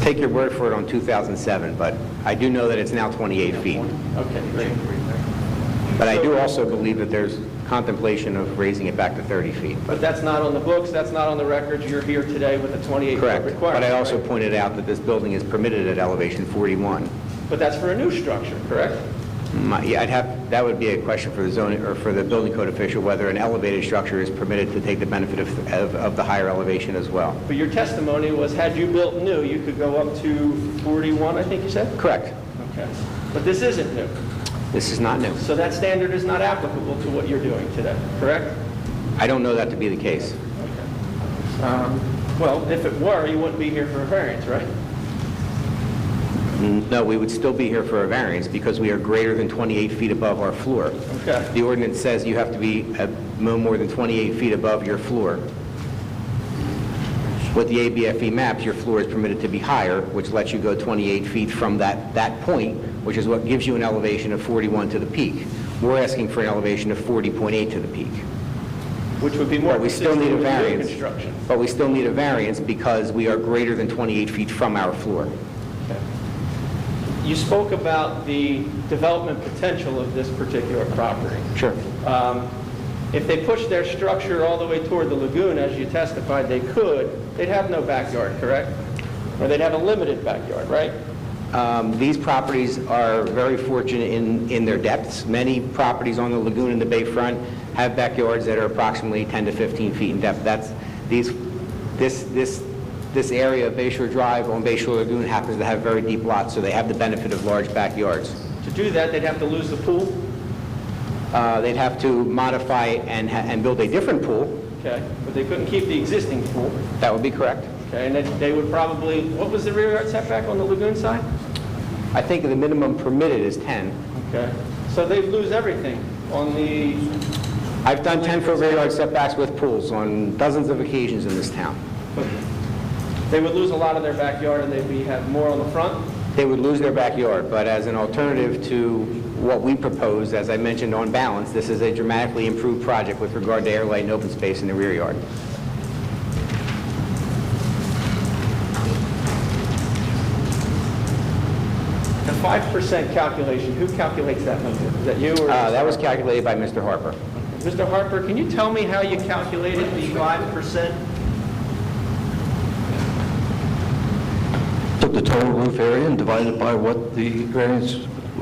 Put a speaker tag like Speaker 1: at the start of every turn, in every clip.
Speaker 1: take your word for it on 2007, but I do know that it's now 28 feet.
Speaker 2: Okay, great.
Speaker 1: But I do also believe that there's contemplation of raising it back to 30 feet.
Speaker 2: But that's not on the books, that's not on the record, you're here today with a 28-foot
Speaker 1: Correct.
Speaker 2: requirement.
Speaker 1: But I
Speaker 2: right?
Speaker 1: also pointed out that this building is permitted at elevation 41.
Speaker 2: But that's for a new structure, correct?
Speaker 1: My- Yeah, I'd have, that would be a question for the zoning, or for the building code official, whether an elevated structure is permitted to take the benefit of, of- of the higher elevation as well.
Speaker 2: But your testimony was, had you built new, you could go up to 41, I think you said?
Speaker 1: Correct.
Speaker 2: Okay. But this isn't new,
Speaker 1: This is not new.
Speaker 2: so that standard is not applicable to what you're doing today, correct?
Speaker 1: I don't know that to be the case.
Speaker 2: Um, Well, if it were, you wouldn't be here for a variance, right?
Speaker 1: No, we would still be here for a variance because we are greater than 28 feet above our floor.
Speaker 2: Okay.
Speaker 1: The ordinance says you have to be uh, no more than 28 feet above your floor. With the ABFE E maps, your floor is permitted to be higher, which lets you go 28 feet from that, that point, which is what gives you an elevation of 41 to the peak. We're asking for an elevation of 40.8 to the peak.
Speaker 2: Which would be more
Speaker 1: But we still
Speaker 2: consistent
Speaker 1: need a
Speaker 2: with new
Speaker 1: variance.
Speaker 2: construction.
Speaker 1: But we still need a variance because we are greater than 28 feet from our floor.
Speaker 2: You spoke about the development potential of this particular property.
Speaker 1: Sure.
Speaker 2: Um, If they pushed their structure all the way toward the lagoon, as you testified they could, they'd have no backyard, correct? Or they'd have a limited backyard, right?
Speaker 1: Um, These properties are very fortunate in, in their depths. Many properties on the lagoon and the bayfront have backyards that are approximately 10 to 15 feet in depth. That's, these, this, this, this area of Bayshore Drive on Bayshore Lagoon happens to have very deep lots, so they have the benefit of large backyards.
Speaker 2: To do that, they'd have to lose the pool,
Speaker 1: Uh, They'd have to modify and, ha- and build a different pool.
Speaker 2: okay? But they couldn't keep the existing pool,
Speaker 1: That would be correct.
Speaker 2: okay? And then they would probably, what was the rear yard setback on the lagoon side?
Speaker 1: I think the minimum permitted is 10.
Speaker 2: Okay, so they'd lose everything on the,
Speaker 1: I've done 10-foot rear yard setbacks with pools on dozens of occasions in this town.
Speaker 2: they would lose a lot of their backyard, and they'd be, have more on the front?
Speaker 1: They would lose their backyard, but as an alternative to what we proposed, as I mentioned on balance, this is a dramatically improved project with regard to air, light, and open space in the rear yard.
Speaker 2: The 5% calculation, who calculates that number? Is that you or?
Speaker 1: Uh, That was calculated by Mr. Harper.
Speaker 2: Mr. Harper, can you tell me how you calculated the 5%?
Speaker 3: Took the total roof area and divided it by what the variance,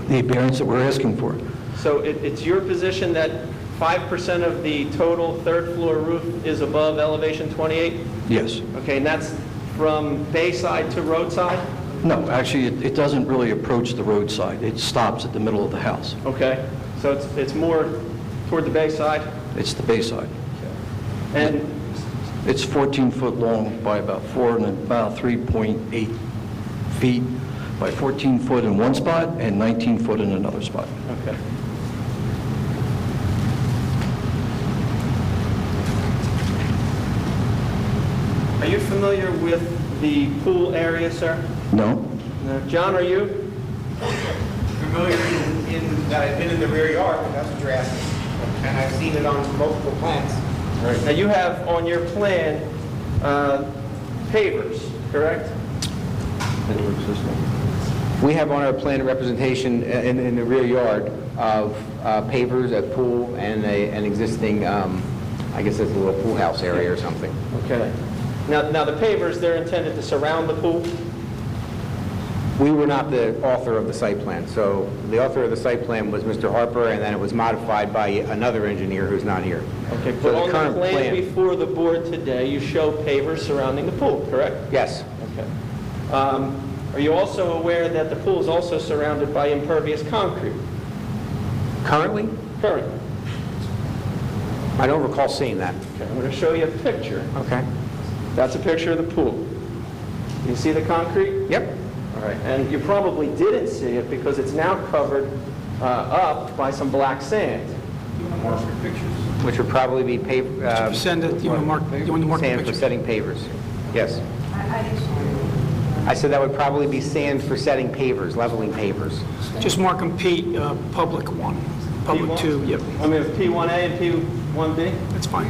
Speaker 3: the variance that we're asking for.
Speaker 2: So it- it's your position that 5% of the total third floor roof is above elevation 28?
Speaker 3: Yes.
Speaker 2: Okay, and that's from bayside to roadside?
Speaker 3: No, actually, it it doesn't really approach the roadside. It stops at the middle of the house.
Speaker 2: Okay, so it's it's more toward the bayside?
Speaker 3: It's the bayside.
Speaker 2: And
Speaker 3: It's 14 foot long by about four and about 3.8 feet by 14 foot in one spot and 19 foot in another spot.
Speaker 2: Okay. Are you familiar with the pool area, sir?
Speaker 3: No?
Speaker 2: No. John, are you?
Speaker 1: Familiar in that I've been in the rear yard, but that's what you're asking. And I've seen it on multiple plans.
Speaker 2: Now, you have on your plan uh, pavers, correct?
Speaker 1: We have on our plan a representation uh, in, in the rear yard of uh, pavers, a pool, and a, an existing, um, I guess it's a little pool house area or something.
Speaker 2: Okay. Now, now the pavers, they're intended to surround the pool?
Speaker 1: We were not the author of the site plan, so the author of the site plan was Mr. Harper, and then it was modified by another engineer who's not here.
Speaker 2: Okay,
Speaker 1: So
Speaker 2: but on the
Speaker 1: current
Speaker 2: plan before the board today, you show pavers surrounding the pool, correct?
Speaker 1: Yes,
Speaker 2: Okay. Um, Are you also aware that the pool is also surrounded by impervious concrete
Speaker 1: currently?
Speaker 2: currently?
Speaker 1: I don't recall seeing that.
Speaker 2: Okay, I'm going to show you a picture.
Speaker 1: Okay.
Speaker 2: That's a picture of the pool. You see the concrete?
Speaker 1: Yep.
Speaker 2: All right. And you probably didn't see it because it's now covered uh, up by some black sand.
Speaker 1: Which would probably be pav- uh,
Speaker 4: Send it, you want to mark, you want to mark the
Speaker 1: sand for
Speaker 4: picture?
Speaker 1: setting pavers. Yes. I said that would probably be sand for setting pavers, leveling pavers.
Speaker 4: Just mark them P, uh, public one, public
Speaker 2: P1?
Speaker 4: two, yep,
Speaker 2: I mean, it's P1A and P1B?
Speaker 4: that's fine.